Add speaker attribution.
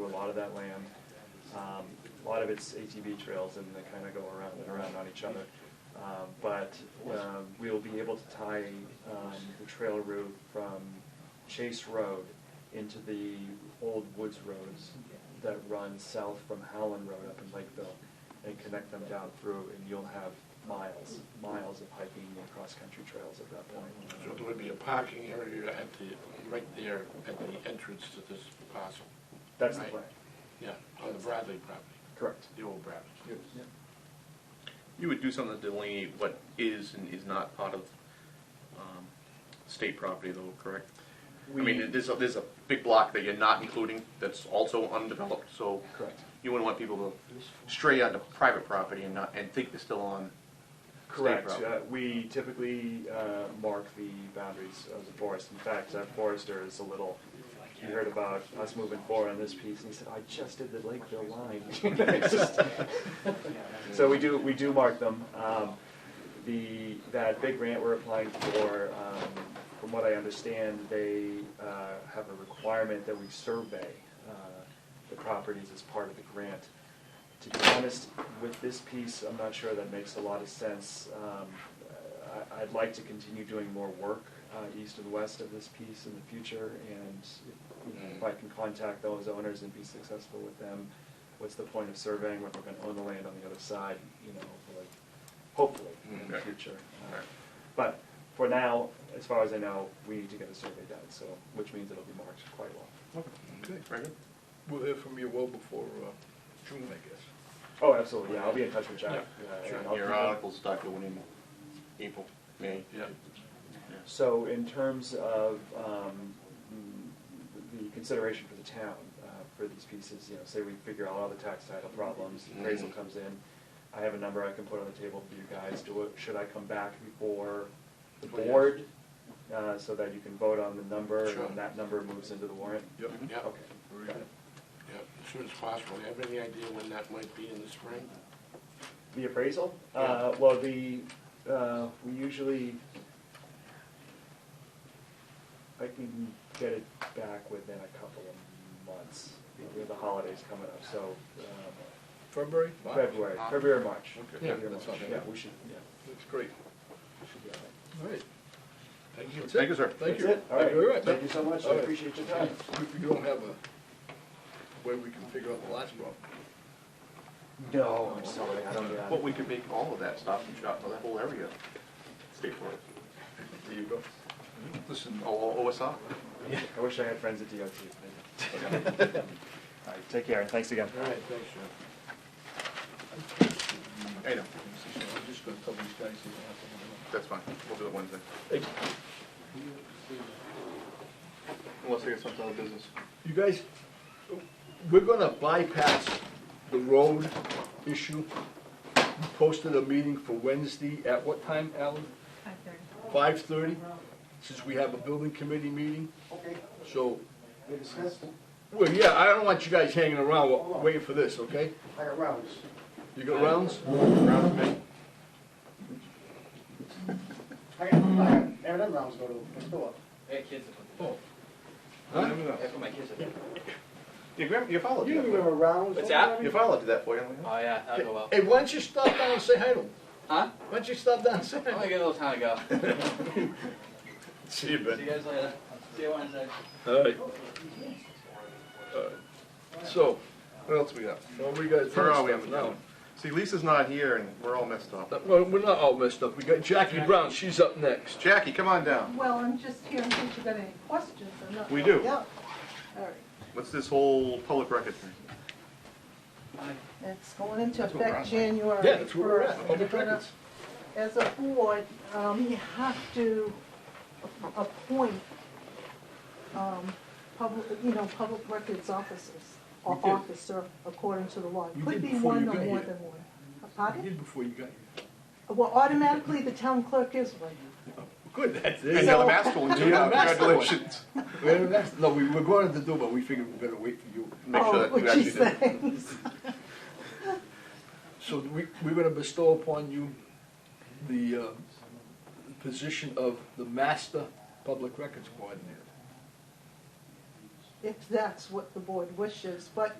Speaker 1: lot of that land. Um, A lot of it's ATV trails and they kind of go around and around on each other. Um, But um, we'll be able to tie um, the trail route from Chase Road into the old woods roads that run south from Howland Road up in Lakeville and connect them down through and you'll have miles, miles of hiking and cross-country trails at that
Speaker 2: So
Speaker 1: point.
Speaker 2: there would be a parking area at the, right there at the entrance to this parcel.
Speaker 1: That's the
Speaker 2: right?
Speaker 1: plan,
Speaker 2: Yeah, on the Bradley property,
Speaker 1: correct.
Speaker 2: the old Bradley.
Speaker 1: Yep.
Speaker 3: You would do something to delineate what is and is not part of um, state property though, correct? I
Speaker 1: We-
Speaker 3: mean, there's a, there's a big block that you're not including that's also undeveloped, so
Speaker 1: Correct.
Speaker 3: you wouldn't want people to stray onto private property and not, and think they're still on state
Speaker 1: Correct.
Speaker 3: property.
Speaker 1: Uh, We typically uh, mark the boundaries of the forest. In fact, our forester is a little, he heard about us moving forward on this piece, and he said, I just did the Lakeville line. It's just- So we do, we do mark them. Um, The, that big grant we're applying for, um, from what I understand, they uh, have a requirement that we survey uh, the properties as part of the grant. To be honest, with this piece, I'm not sure that makes a lot of sense. Um, I, I'd like to continue doing more work, uh, east and west of this piece in the future, and if- if I can contact those owners and be successful with them, what's the point of surveying when we're gonna own the land on the other side, you know, like, hopefully, in the
Speaker 3: Okay.
Speaker 1: future. Uh,
Speaker 3: Alright.
Speaker 1: But for now, as far as I know, we need to get a survey done, so, which means it'll be marked quite well.
Speaker 4: Okay,
Speaker 3: Very good.
Speaker 4: we'll hear from you well before uh, June, I guess.
Speaker 1: Oh, absolutely, yeah, I'll be in touch with Jack.
Speaker 2: Yeah,
Speaker 1: uh, and
Speaker 2: sure.
Speaker 1: I'll-
Speaker 3: Your articles start going in April, May.
Speaker 2: Yeah.
Speaker 1: So in terms of um, the consideration for the town, uh, for these pieces, you know, say we figure out all the tax title problems, appraisal
Speaker 3: Mhm.
Speaker 1: comes in, I have a number I can put on the table for you guys, do it, should I come back before the
Speaker 2: Well, yes.
Speaker 1: board? uh, So that you can vote on the number, and
Speaker 2: Sure.
Speaker 1: then that number moves into the warrant?
Speaker 4: Yep.
Speaker 3: Mm-hmm.
Speaker 2: Yeah,
Speaker 1: Okay.
Speaker 4: Very
Speaker 1: Got
Speaker 4: good.
Speaker 1: it.
Speaker 2: yeah, as soon as possible. You have any idea when that might be in the spring?
Speaker 1: The appraisal? Uh, Well, the, uh, we usually, I can get it back within a couple of months. We have the holidays coming up, so um,
Speaker 4: February? March?
Speaker 1: February, February, March.
Speaker 4: Okay.
Speaker 1: February,
Speaker 2: Yeah,
Speaker 1: March.
Speaker 2: that's not bad.
Speaker 1: Yeah, we should, yeah.
Speaker 4: That's great.
Speaker 1: we should be all right.
Speaker 4: All right. Thank you.
Speaker 3: Thank you, sir.
Speaker 4: Thank you.
Speaker 1: That's it, all right.
Speaker 4: Thank you very much.
Speaker 1: Thank you so much, I
Speaker 4: All right.
Speaker 1: appreciate your time.
Speaker 4: We- We don't have a way we can figure out the last problem.
Speaker 3: Oh,
Speaker 1: No, I'm sorry, I don't get
Speaker 3: But
Speaker 1: it.
Speaker 3: we could make all of that stop and shop, that whole area, state forest,
Speaker 4: There you go.
Speaker 3: listen, all OSR.
Speaker 1: I wish I had friends at DOT. All right, take care, and thanks again.
Speaker 2: All right, thanks, Jeff.
Speaker 3: I know,
Speaker 4: I'm just gonna tell these guys. they don't have to worry
Speaker 3: that's fine, we'll do it Wednesday.
Speaker 4: about it.
Speaker 3: Unless I get some other business.
Speaker 4: You guys, we're gonna bypass the road issue. You Posted a meeting for Wednesday at what time, Alan?
Speaker 5: Five thirty.
Speaker 4: Five thirty, since we have a building committee meeting.
Speaker 6: Okay,
Speaker 4: So,
Speaker 6: we discussed,
Speaker 4: well, yeah, I don't want you guys hanging around wa- waiting for this, okay?
Speaker 6: I got rounds.
Speaker 4: You got rounds?
Speaker 3: Around May.
Speaker 6: I got, I got, every them rounds go to the store.
Speaker 7: Hey, kids.
Speaker 4: Huh?
Speaker 7: That's what my kids are doing.
Speaker 3: Your grandma, your father
Speaker 6: You
Speaker 3: did that. for
Speaker 6: remember rounds?
Speaker 7: What's
Speaker 6: don't
Speaker 7: that?
Speaker 6: you?
Speaker 3: you. Your father did that for you. I'm like,
Speaker 7: Oh, yeah, that'll go well.
Speaker 4: Hey, why don't you stop down and say hi to them?
Speaker 7: Huh? Oh,
Speaker 4: Why don't you stop down and say
Speaker 7: I'm
Speaker 4: hi?
Speaker 7: gonna get a little time to go.
Speaker 4: See you,
Speaker 7: See you guys later. See you Wednesday.
Speaker 4: All right. So,
Speaker 3: What else we got?
Speaker 4: well, we got
Speaker 3: Where are we on
Speaker 4: stuff
Speaker 3: the
Speaker 4: now.
Speaker 3: calendar? See, Lisa's not here and we're all messed up.
Speaker 4: That- Well, we're not all messed up. We got Jackie Brown, she's up next.
Speaker 3: Jackie, come on down.
Speaker 5: Well, I'm just here in case you got any questions or not.
Speaker 3: We do.
Speaker 6: Yeah,
Speaker 5: All right,
Speaker 3: What's this whole public record thing?
Speaker 5: it's going into
Speaker 3: That's what we're
Speaker 5: effect
Speaker 3: on, right?
Speaker 5: January first.
Speaker 4: Yeah, that's where we're at, public records.
Speaker 5: As a board, um, you have to a- appoint, um, public, you know, public records officers, or
Speaker 4: You did.
Speaker 5: officer, according to the law. It
Speaker 4: You
Speaker 5: Could
Speaker 4: did
Speaker 5: be
Speaker 4: before
Speaker 5: one
Speaker 4: you
Speaker 5: or
Speaker 4: got
Speaker 5: more
Speaker 4: here.
Speaker 5: than one. Pardon?
Speaker 4: did before you got here.
Speaker 5: Well, automatically, the town clerk is one.
Speaker 4: Good, that's
Speaker 3: And
Speaker 4: it.
Speaker 3: you're the master one too.
Speaker 4: Yeah, master one.
Speaker 3: Congratulations.
Speaker 4: We had a nice- No, we were going to do, but we figured we better wait for you.
Speaker 3: Make sure that
Speaker 5: Oh,
Speaker 3: you
Speaker 5: what
Speaker 3: actually
Speaker 5: she
Speaker 3: did. it.
Speaker 5: says.
Speaker 4: So we, we're gonna bestow upon you the, uh, position of the master public records coordinator.
Speaker 5: if that's what the board wishes, but